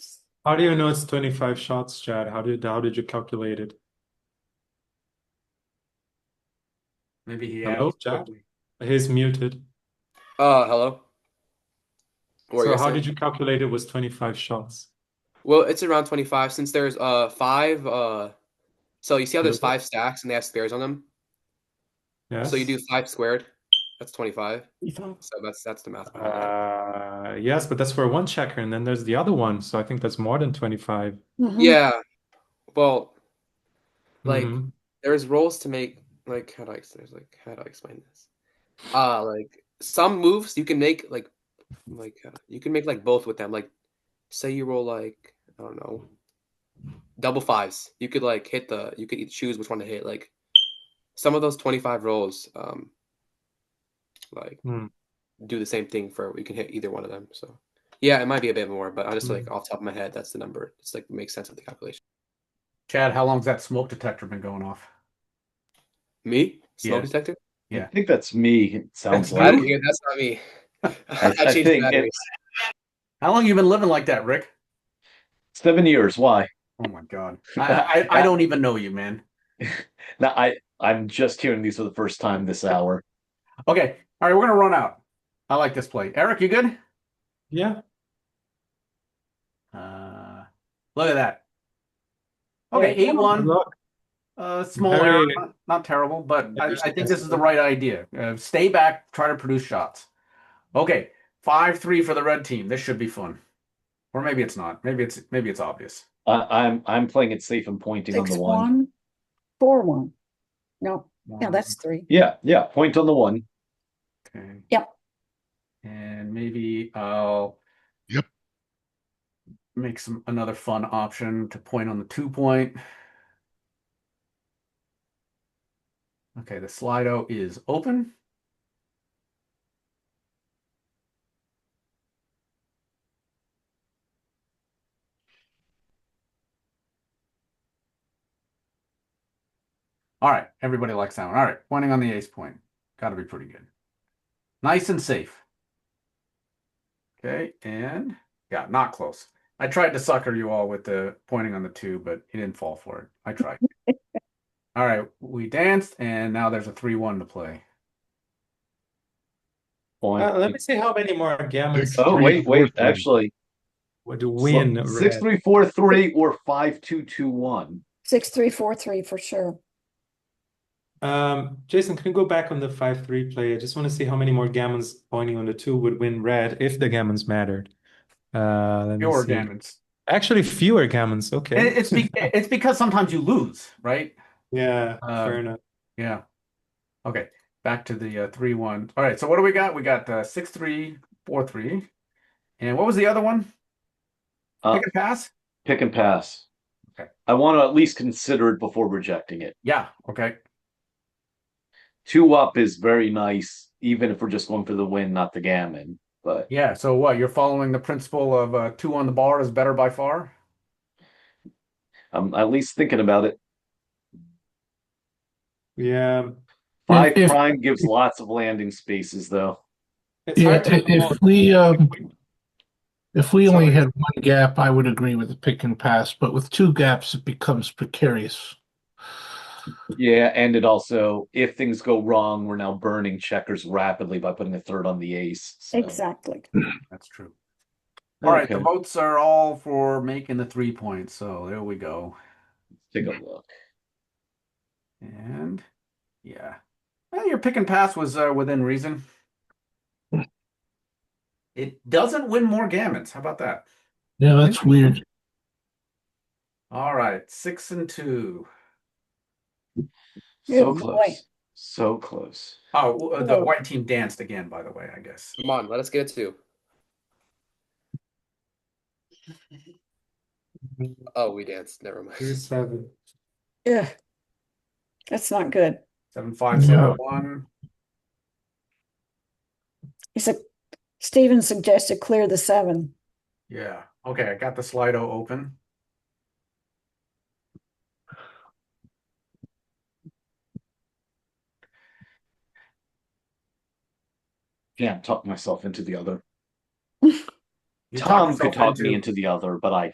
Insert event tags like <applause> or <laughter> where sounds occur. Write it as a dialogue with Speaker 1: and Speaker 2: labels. Speaker 1: How do you know it's 25 shots, Chad? How did how did you calculate it?
Speaker 2: Maybe he
Speaker 1: Hello,
Speaker 2: asked
Speaker 1: Jack?
Speaker 2: quickly.
Speaker 1: He's muted.
Speaker 3: Uh, hello. What were
Speaker 1: So
Speaker 3: you
Speaker 1: how
Speaker 3: saying?
Speaker 1: did you calculate it was 25 shots?
Speaker 3: Well, it's around 25 since there's uh five uh so you see how there's
Speaker 1: Hello?
Speaker 3: five stacks and they have squares on them?
Speaker 1: Yes.
Speaker 3: So you do five squared. That's 25. So that's that's the math behind that.
Speaker 1: Uh, yes, but that's for one checker, and then there's the other one. So I think that's more than Mm-hmm. 25.
Speaker 3: Yeah. Well, Like-
Speaker 1: Mhm.
Speaker 3: there's roles to make like how do I there's like how do I explain this? Uh like some moves you can make like like uh, you can make like both with them. Like say you roll like I don't know double fives. You could like hit the you could each choose which one to hit. Like some of those twenty five rolls um like
Speaker 1: Hmm.
Speaker 3: do the same thing for you can hit either one of them. So yeah, it might be a bit more, but I just like off the top of my head that's the number. It's like makes sense of the calculation.
Speaker 2: Chad, how long's that smoke detector been going off?
Speaker 3: Me? Smoke
Speaker 2: Yes.
Speaker 3: detector?
Speaker 2: Yeah.
Speaker 4: I think that's me, it sounds
Speaker 3: I
Speaker 4: like.
Speaker 3: don't hear. That's not me.
Speaker 4: I,
Speaker 3: <laughs> I,
Speaker 4: I
Speaker 3: changed the
Speaker 4: think
Speaker 3: batteries.
Speaker 4: it's
Speaker 2: How long you been living like that, Rick?
Speaker 4: seven years. Why?
Speaker 2: Oh my god. I I, I don't even know you, man.
Speaker 4: Now, I, I'm just hearing these for the first time this hour.
Speaker 2: Okay. All right, we're gonna run out. I like this play. Eric, you good?
Speaker 1: Yeah.
Speaker 2: Uh look at that. Okay, eight
Speaker 1: Good
Speaker 2: one.
Speaker 1: luck.
Speaker 2: Uh, small
Speaker 1: Very-
Speaker 2: error, not, not terrible, but I, I think this is the right idea. Uh, stay back, try to produce shots. Okay, five three for the red team. This should be fun, or maybe it's not. Maybe it's maybe it's obvious.
Speaker 4: I, I'm I'm playing it safe and pointing on
Speaker 5: Six,
Speaker 4: the one.
Speaker 5: one, four, one. No, yeah, that's three.
Speaker 4: Yeah, yeah. Point on the one.
Speaker 2: okay.
Speaker 5: Yep.
Speaker 2: And maybe I'll
Speaker 6: Yep.
Speaker 2: make some another fun option to point on the two point. Okay, the Slido is open. All right, everybody likes that one. All right, pointing on the ace point. Got to be pretty good. Nice and safe. Okay, and yeah, not close. I tried to sucker you all with the pointing on the two, but you didn't fall for it. I tried. all right, we danced, and now there's a 3 1 to play.
Speaker 4: Point.
Speaker 1: Uh, let me see how many more gammons
Speaker 4: oh
Speaker 6: three,
Speaker 4: wait,
Speaker 6: four,
Speaker 4: wait.
Speaker 6: three.
Speaker 4: Actually,
Speaker 1: would win.
Speaker 4: sl- six
Speaker 1: red.
Speaker 4: three four three or five two two one.
Speaker 5: Six, three, four, three for sure.
Speaker 1: Um, Jason, can you go back on the 5-3 play? I just want to see how many more gammons pointing on the 2 would win red if the gammons mattered. Uh, let me
Speaker 2: Your
Speaker 1: see.
Speaker 2: gammons.
Speaker 1: Actually, fewer gammons.
Speaker 2: It-
Speaker 1: Okay. <laughs>
Speaker 2: It's, be- it's because sometimes you lose, right?
Speaker 1: Yeah,
Speaker 2: Uh,
Speaker 1: fair enough.
Speaker 2: Yeah. Okay. Back to the uh, three one. All right. So what do we got? We got uh, six three four three, and what was the other one?
Speaker 4: Uh,
Speaker 2: Pick and pass.
Speaker 4: Pick and pass.
Speaker 2: Okay.
Speaker 4: I want to at least consider it before rejecting it.
Speaker 2: Yeah. Okay.
Speaker 4: Two up is very nice, even if we're just going for the win, not the gammon. But
Speaker 2: Yeah. So what? You're following the principle of uh, two on the bar is better by far.
Speaker 4: I'm at least thinking about it.
Speaker 1: Yeah.
Speaker 4: Five
Speaker 7: if-
Speaker 4: prime gives lots of landing spaces, though.
Speaker 1: It's
Speaker 7: Yeah,
Speaker 1: hard to
Speaker 7: i-
Speaker 1: know.
Speaker 7: if we, um, if we only
Speaker 1: Sorry.
Speaker 7: had one gap, I would agree with the pick and pass, but with two gaps, it becomes precarious.
Speaker 4: Yeah, and it also, if things go wrong, we're now burning checkers rapidly by putting a third on the ace. so-
Speaker 5: Exactly.
Speaker 2: That's true. All right.
Speaker 4: Okay,
Speaker 2: The votes are all for making the three points. So there we go.
Speaker 4: Take a look.
Speaker 2: And yeah, well, your pick and pass was uh, within reason. It doesn't win more gammons. How about that?
Speaker 7: Yeah, that's weird.
Speaker 2: All right, six and two.
Speaker 5: Good
Speaker 4: So
Speaker 5: boy.
Speaker 4: close. So close.
Speaker 2: Oh, w- uh, the
Speaker 5: Whoa.
Speaker 2: white team danced again, by the way, I guess.
Speaker 3: Come on, let us get it too. Oh, we danced. Never
Speaker 1: Two,
Speaker 3: mind.
Speaker 1: seven.
Speaker 5: Ugh. That's not good.
Speaker 2: Seven five seven
Speaker 7: Yeah.
Speaker 2: one.
Speaker 5: He said, Steven suggested clear the seven.
Speaker 2: Yeah. Okay, I got the Slido open.
Speaker 4: Can't talk myself into the other.
Speaker 2: You talked
Speaker 4: Tom could
Speaker 2: yourself
Speaker 4: talk me
Speaker 2: into-
Speaker 4: into the other, but I